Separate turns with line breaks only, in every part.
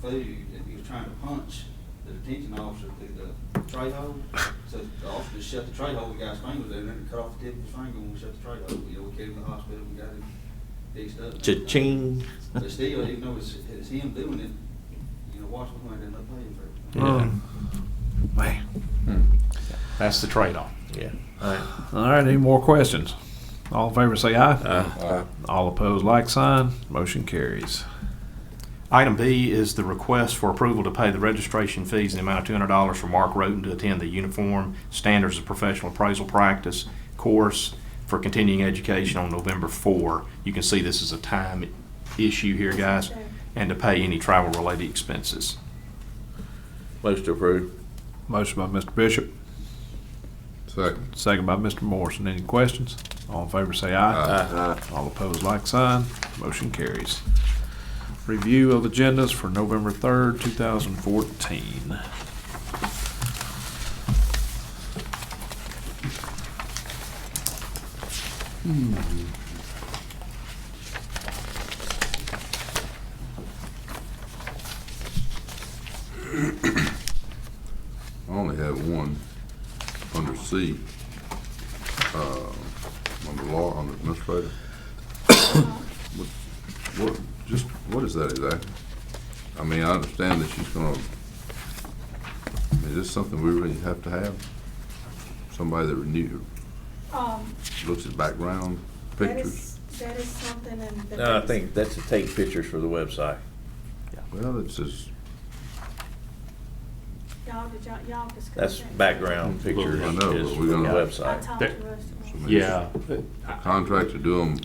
food, and he was trying to punch the detention officer through the tray hole. So the officer just shut the tray hole, the guy's finger was in there, and cut off the tip of his finger when we shut the tray hole. You know, we carried him to the hospital, we got him fixed up.
Cha-ching.
But still, even though it's, it's him doing it, you know, Washington County didn't pay him for it.
Yeah.
Um, Man.
Hmm. That's the trade-off.
Yeah.
All right, any more questions? All in favor say aye.
Uh,
All opposed, like sign. Motion carries.
Item B is the request for approval to pay the registration fees in the amount of two hundred dollars for Mark Roten to attend the Uniform Standards of Professional Appraisal Practice course for continuing education on November four. You can see this is a time issue here, guys, and to pay any travel-related expenses.
Most approved.
Motion by Mr. Bishop,
Second.
second by Mr. Morrison. Any questions? All in favor say aye. All opposed, like sign. Motion carries. Review of agendas for November third, two thousand fourteen.
I only have one under C. Uh, Under law, under administrator.
Um,
What, what, just, what is that exactly? I mean, I understand that she's gonna, is this something we really have to have? Somebody that renew,
Um,
looks at background
that
pictures?
is, that is something in the.
No, I think that's to take pictures for the website.
Well, it's just,
Y'all, did y'all, y'all discussed
That's
that?
background pictures
I
is
know, but
is for
we're
the
gonna-
I
website.
talked
There-
to Russell.
I mean, Contract to do them.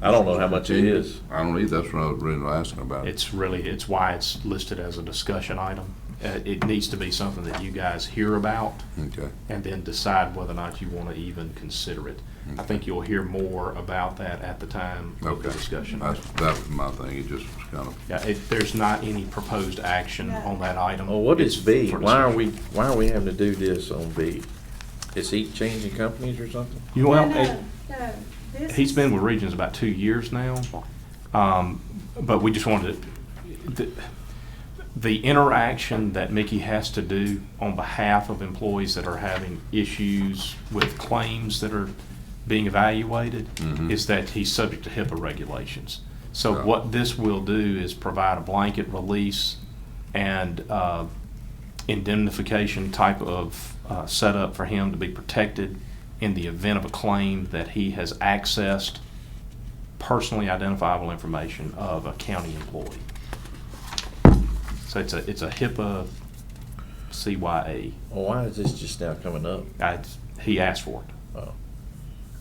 I don't know how much it is.
I don't either, that's what I was really asking about.
It's really, it's why it's listed as a discussion item. Uh, it needs to be something that you guys hear about
Okay.
and then decide whether or not you want to even consider it. I think you'll hear more about that at the time of the
Okay.
discussion.
That's, that was my thing, it just was kind of,
Yeah, it, there's not any proposed action on that item.
Well, Oh, what is
It's
B?
for
Why are
discussion.
we, why are we having to do this on B? Is he changing companies or something?
You
No,
well,
no,
it-
no, this
he's
is-
been with Regions about two years now, um, but we just wanted to, the, the interaction that Mickey has to do on behalf of employees that are having issues with claims that are being evaluated is that he's subject to HIPAA regulations. So
Yeah.
what this will do is provide a blanket release and uh, indemnification type of uh, setup for him to be protected in the event of a claim that he has accessed personally identifiable information of a county employee. So it's a, it's a HIPAA CYA.
Well, why is this just now coming up?
I, he asked for it.
Oh.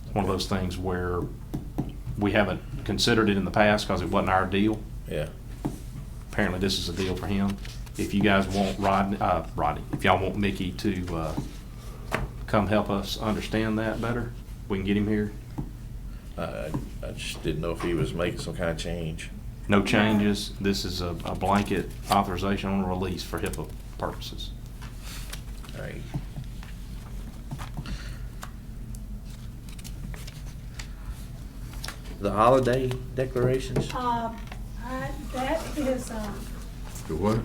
It's One of those things where we haven't considered it in the past because it wasn't our deal.
Yeah.
Apparently, this is a deal for him. If you guys want Rodney, uh, Rodney, if y'all want Mickey to, uh, come help us understand that better, we can get him here.
I, I I just didn't know if he was making some kind of change.
No changes. This is a, a blanket authorization on release for HIPAA purposes.
All right. The holiday declarations?
Um, I, that is, um,
the what?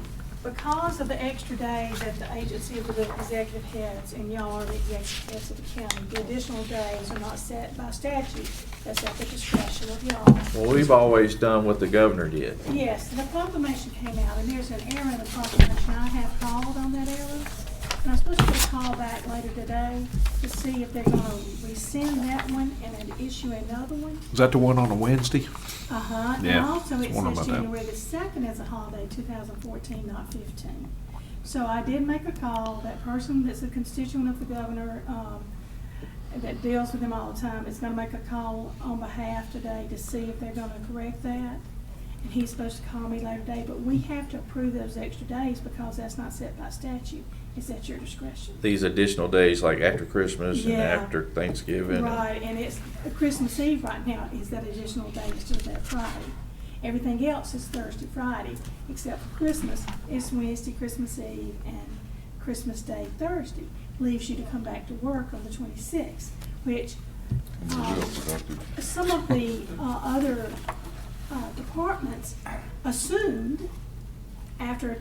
because of the extra day that the agency of the executive heads and y'all are the executive heads of the county, the additional days are not set by statute. That's at the discretion of y'all.
Well, we've always done what the governor did.
Yes, the proclamation came out, and there's an error in the proclamation. I have called on that error. And I'm supposed to get a call back later today to see if they're gonna rescind that one and then issue another one.
Is that the one on a Wednesday?
Uh-huh. And
Yeah,
also,
was
it
wondering
says
about that.
January the second is a holiday, two thousand fourteen, not fifteen. So I did make a call. That person that's a constituent of the governor, um, that deals with him all the time, is gonna make a call on behalf today to see if they're gonna correct that. And he's supposed to call me later today, but we have to approve those extra days because that's not set by statute. It's at your discretion.
These additional days, like after Christmas and
Yeah.
after Thanksgiving.
Right, and it's Christmas Eve right now is that additional day instead of that Friday. Everything else is Thursday, Friday, except for Christmas. It's Wednesday, Christmas Eve, and Christmas Day, Thursday. Leaves you to come back to work on the twenty-sixth, which, um, some of the uh, other uh, departments uh, assumed after a